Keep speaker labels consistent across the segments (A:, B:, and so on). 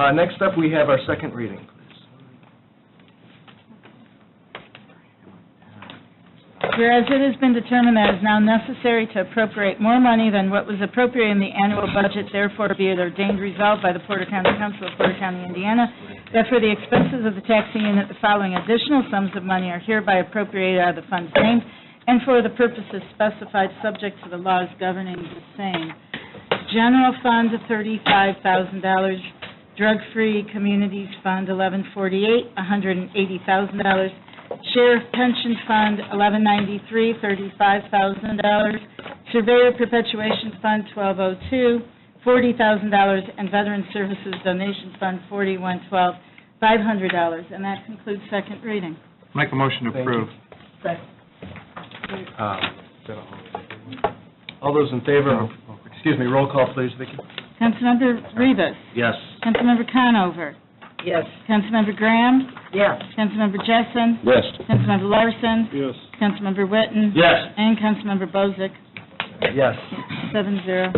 A: Uh, Next up, we have our second reading.
B: Whereas it has been determined that it is now necessary to appropriate more money than what was appropriated in the annual budget, therefore be it ordained resolved by the Porter County Council of Porter County, Indiana, that for the expenses of the taxing unit, the following additional sums of money are hereby appropriated out of the funds named, and for the purposes specified, subject to the laws governing the same. General Fund, $35,000. Drug-Free Communities Fund, 1148, $180,000. Sheriff Pension Fund, 1193, $35,000. Surveyor Perpetuation Fund, 1202, $40,000. And Veteran Services Donation Fund, 4112, $500. And that concludes second reading.
C: Make a motion to
A: Thank you.
C: approve.
A: Uh, is that all? All those in favor, of- excuse me, roll call, please, Vicki.
B: Councilmember Rivas.
A: Yes.
B: Councilmember Conover.
D: Yes.
B: Councilmember Graham.
D: Yes.
B: Councilmember Jessen.
A: Yes.
B: Councilmember Larson.
A: Yes.
B: Councilmember Witten.
A: Yes.
B: And Councilmember Bozick,
A: Yes.
B: seven zero.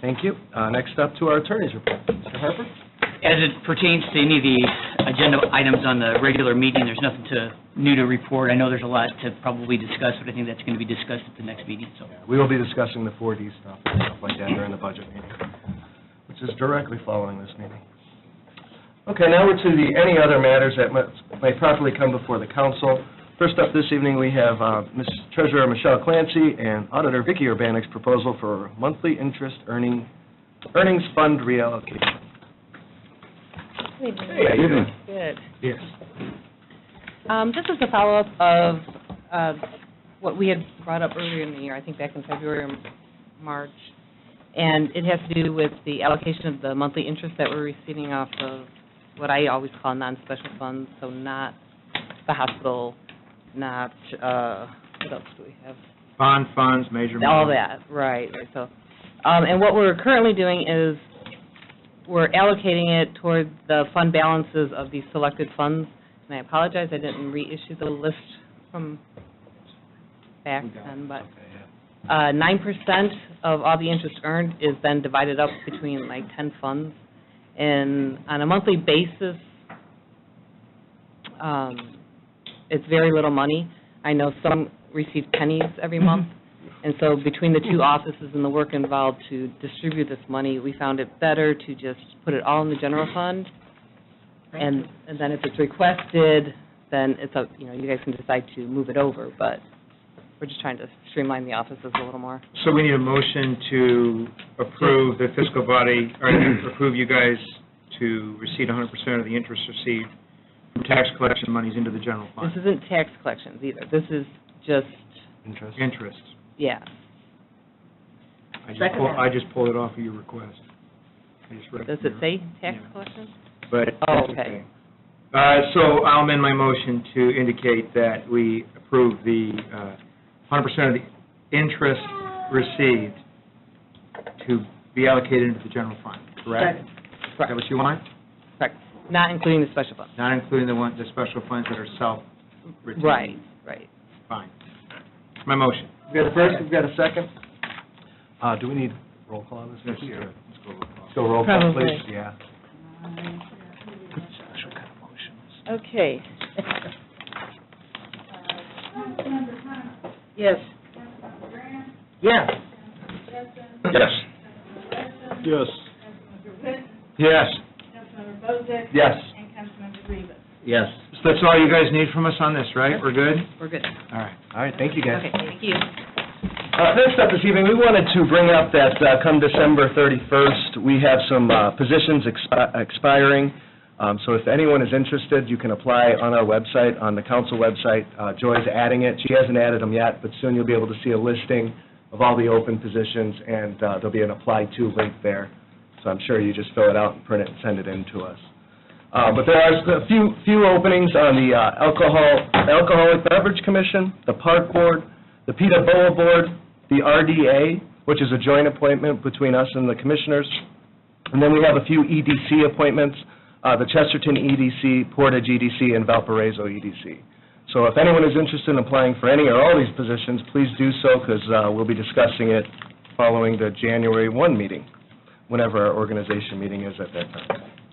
A: Thank you. Uh, Next up to our attorney's report. Mr. Harper?
E: As it pertains to any of the agenda items on the regular meeting, there's nothing to, new to report. I know there's a lot to probably discuss, but I think that's going to be discussed at the next meeting, so.
A: We will be discussing the 4D stuff and stuff like that during the budget meeting, which is directly following this meeting. Okay, now we're to the any other matters that must- may properly come before the council. First up this evening, we have uh, Ms. Treasurer Michelle Clancy and Auditor Vicki Urbanek's proposal for monthly interest earning, earnings fund reallocation. Good evening.
D: Good.
A: Yes.
D: Um, This is a follow-up of uh, what we had brought up earlier in the year, I think back in February or March, and it has to do with the allocation of the monthly interest that we're receiving off of what I always call non-special funds, so not the hospital, not, uh, what else do we have?
C: Bond funds, major.
D: All that, right, right, so, um, and what we're currently doing is, we're allocating it toward the fund balances of these selected funds, and I apologize, I didn't reissue the list from back then, but, uh, nine percent of all the interest earned is then divided up between like ten funds, and on a monthly basis, um, it's very little money. I know some receive pennies every month, and so between the two offices and the work involved to distribute this money, we found it better to just put it all in the general fund. And, and then if it's requested, then it's, up you know, you guys can decide to move it over, but we're just trying to streamline the offices a little more.
C: So we need a motion to approve the fiscal body, or to approve you guys to receive 100% of the interest received from tax collection monies into the general
D: This
C: fund.
D: isn't tax collections either. This is just,
A: Interest.
C: Interest.
D: yeah.
C: I just
D: Second.
C: pull- I just pulled it off of your request. I just read
D: Does it
C: from your-
D: say tax
C: Yeah.
D: collections?
C: But.
D: Oh,
C: that's
D: okay.
C: Uh, So I'll amend my motion to indicate that we approve the uh, 100% of the interest received to be allocated into the general fund, correct? Is that what you want?
D: Correct. Not including the special fund.
C: Not including the one, the special funds that are self-retained?
D: Right, right.
C: Fine. My motion.
A: We've got a first, we've got a second. Uh, Do we need roll call on this?
C: Let's
A: Vicki,
C: do
A: or-
C: it. Let's go roll call.
A: Let's go roll call,
D: Probably.
A: please. Yeah.
C: Special kind of motions.
D: Okay. Yes.
C: Yes. Yes. Yes. Yes.
B: Councilmember Bozick.
C: Yes.
B: And Councilmember Rivas.
C: Yes. So that's all you guys need from us on this, right? We're good?
D: We're good.
C: All right.
A: All right, thank you, guys.
D: Okay, thank you.
A: Uh, Next up this evening, we wanted to bring up that uh, come December 31st, we have some uh, positions expi- expiring. Um, So if anyone is interested, you can apply on our website, on the council website. Uh, Joy's adding it. She hasn't added them yet, but soon you'll be able to see a listing of all the open positions, and uh, there'll be an apply to link there. So I'm sure you just fill it out and print it and send it in to us. Uh, But there are a few, few openings on the uh, alcohol, Alcoholic Beverage Commission, the Park Board, the PETA BOA Board, the RDA, which is a joint appointment between us and the commissioners. And then we have a few EDC appointments, uh, the Chesterton EDC, Portage EDC, and Valparaiso EDC. So if anyone is interested in applying for any or all these positions, please do so, because we'll be discussing it following the January 1 meeting, whenever our organization meeting is at that time.